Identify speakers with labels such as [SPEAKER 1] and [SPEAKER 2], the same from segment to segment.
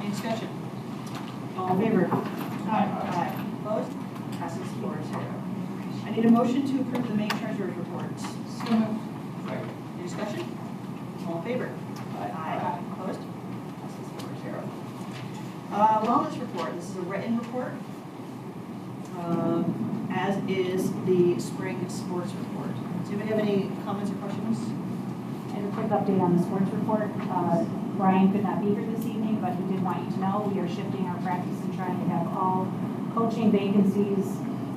[SPEAKER 1] Any discussion? All in favor? Aye. Opposed? Passes four zero. I need a motion to approve the May treasurer's report.
[SPEAKER 2] So moved.
[SPEAKER 1] Any discussion? All in favor? Aye. Opposed? Passes four zero. Uh, wellness report, this is a written report. um, As is the spring sports report. Does anybody have any comments or questions?
[SPEAKER 3] And a quick update on the sports report. Uh, Brian could not be here this evening, but he did want you to know, we are shifting our practice and trying to have all coaching vacancies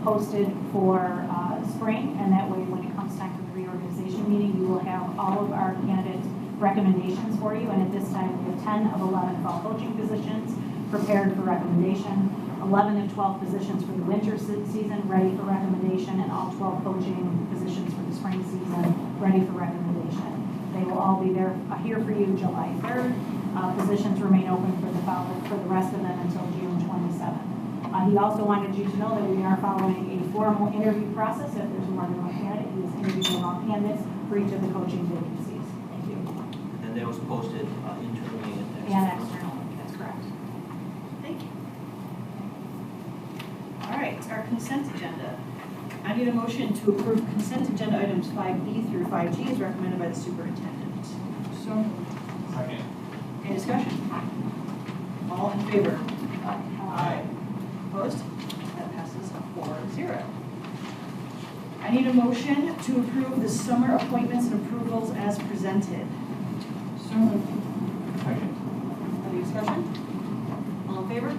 [SPEAKER 3] posted for uh, spring, and that way, when it comes time for the reorganization meeting, you will have all of our candidates' recommendations for you, and at this time, we have 10 of 11 fall coaching positions prepared for recommendation, 11 of 12 positions for the winter se- season, ready for recommendation, and all 12 coaching positions for the spring season, ready for recommendation. They will all be there, uh, here for you July 3rd. Uh, Positions remain open for the follow, for the rest of them until June 27th. Uh, He also wanted you to know that we are following a formal interview process. If there's more than one candidate, he is interviewing all candidates for each of the coaching vacancies. Thank you.
[SPEAKER 4] And that was posted uh, internally and
[SPEAKER 3] And
[SPEAKER 4] externally.
[SPEAKER 3] external, that's correct.
[SPEAKER 1] Thank you. All right, our consent agenda. I need a motion to approve consent agenda items 5B through 5G as recommended by the superintendent.
[SPEAKER 2] So moved.
[SPEAKER 5] Second.
[SPEAKER 1] Any discussion? All in favor?
[SPEAKER 3] Uh,
[SPEAKER 1] Opposed? That passes four zero. I need a motion to approve the summer appointments and approvals as presented.
[SPEAKER 2] So moved.
[SPEAKER 5] Second.
[SPEAKER 1] Any discussion? All in favor?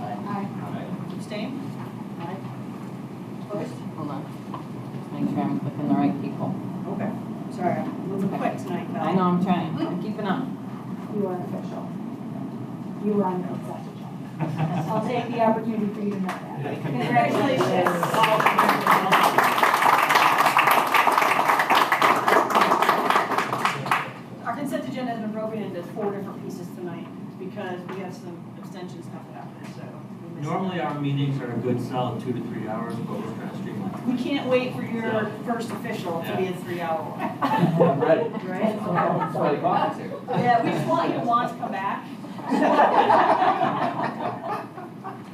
[SPEAKER 2] Aye.
[SPEAKER 1] Abstain? Aye. Opposed?
[SPEAKER 6] Hold on, just make sure I'm clicking the right people.
[SPEAKER 1] Okay. Sorry, I'm moving quick tonight, Val.
[SPEAKER 6] I know I'm trying, I'm keeping up.
[SPEAKER 3] You are official. You are on the consent agenda. I'll take the opportunity for you to know that.
[SPEAKER 1] Congratulations. Our consent agenda has been broken into four different pieces tonight because we have some abstention stuff that happened, so. we missed-
[SPEAKER 4] Normally, uh, our meetings are a good solid two to three hours, but we're trying to streamline.
[SPEAKER 1] We can't wait for your first official to be a three-hour one.
[SPEAKER 4] I'm ready.
[SPEAKER 1] Right?
[SPEAKER 4] That's why the clock is here.
[SPEAKER 1] Yeah, we just want you to want to come back.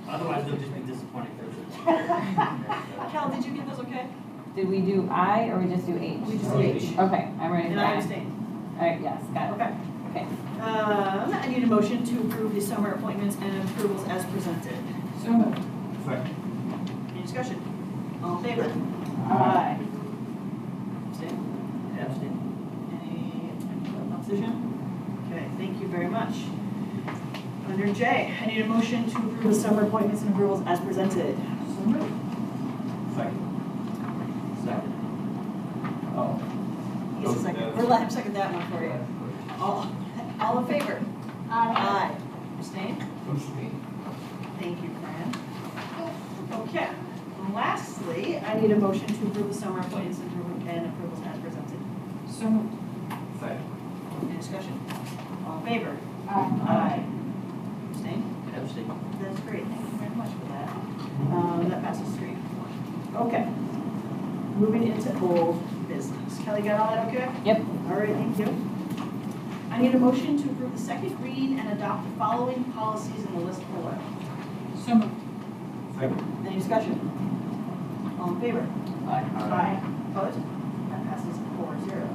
[SPEAKER 4] Otherwise, they'll just be disappointed for sure.
[SPEAKER 1] Cal, did you get those okay?
[SPEAKER 6] Did we do I or we just do H?
[SPEAKER 1] We just did H.
[SPEAKER 6] Okay, I'm ready for
[SPEAKER 1] And I
[SPEAKER 6] I.
[SPEAKER 1] abstained.
[SPEAKER 6] All right, yes, got it.
[SPEAKER 1] Okay.
[SPEAKER 6] Okay,
[SPEAKER 1] Um, I need a motion to approve the summer appointments and approvals as presented.
[SPEAKER 2] So moved.
[SPEAKER 5] Second.
[SPEAKER 1] Any discussion? All in favor? Aye. Abstain?
[SPEAKER 4] Abstain.
[SPEAKER 1] Any opposition? Okay, thank you very much. Under J, I need a motion to approve the summer appointments and approvals as presented.
[SPEAKER 2] So moved.
[SPEAKER 5] Second.
[SPEAKER 4] Second.
[SPEAKER 5] Oh.
[SPEAKER 1] Yes, second, we'll let him second that one for you. All, all in favor? Aye. Abstain? Thank you, Fran. Okay, and lastly, I need a motion to approve the summer appointments and appro- and approvals as presented.
[SPEAKER 2] So moved.
[SPEAKER 5] Second.
[SPEAKER 1] Any discussion? All in favor?
[SPEAKER 3] Uh,
[SPEAKER 1] Aye. Abstain?
[SPEAKER 4] Abstain.
[SPEAKER 1] That's great, thank you very much for that. Um, That passes three. Okay. Moving into old business. Kelly, got all that okay?
[SPEAKER 6] yep,
[SPEAKER 1] All right, thank you. I need a motion to approve the second reading and adopt the following policies in the list below.
[SPEAKER 2] So moved.
[SPEAKER 5] Second.
[SPEAKER 1] Any discussion? All in favor? Aye. Opposed? That passes four zero.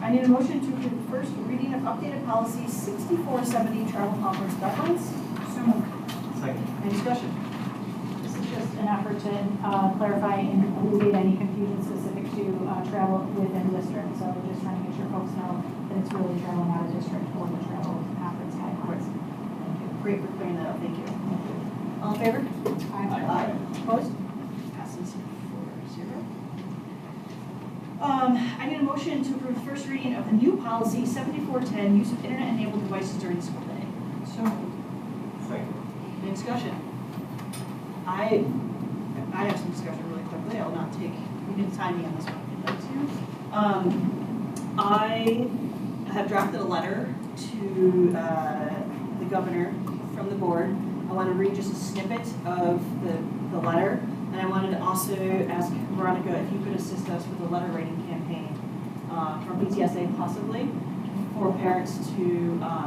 [SPEAKER 1] I need a motion to approve first reading of updated policy sixty-four seventy travel conference guidelines.
[SPEAKER 2] So moved.
[SPEAKER 5] Second.
[SPEAKER 1] Any discussion?
[SPEAKER 3] This is just an effort to uh, clarify and alleviate any confusion specific to uh, travel within district. So we're just trying to make sure folks know that it's really traveling out of district or the travel conference guidelines.
[SPEAKER 1] Great for clearing that up, thank you. All in favor?
[SPEAKER 3] Aye.
[SPEAKER 1] Aye. Opposed? Passes four zero. Um, I need a motion to approve first reading of the new policy seventy-four ten, use of internet-enabled devices during the school day.
[SPEAKER 2] So moved.
[SPEAKER 5] Second.
[SPEAKER 1] Any discussion? I, I have some discussion really quickly, I'll not take, you can time me on this one if you'd like to. Um, I have drafted a letter to, uh, the governor from the board. I want to read just a snippet of the, the letter, and I wanted to also ask Veronica if you could assist us with a letter writing campaign, uh, from BTSA possibly, for parents to, um,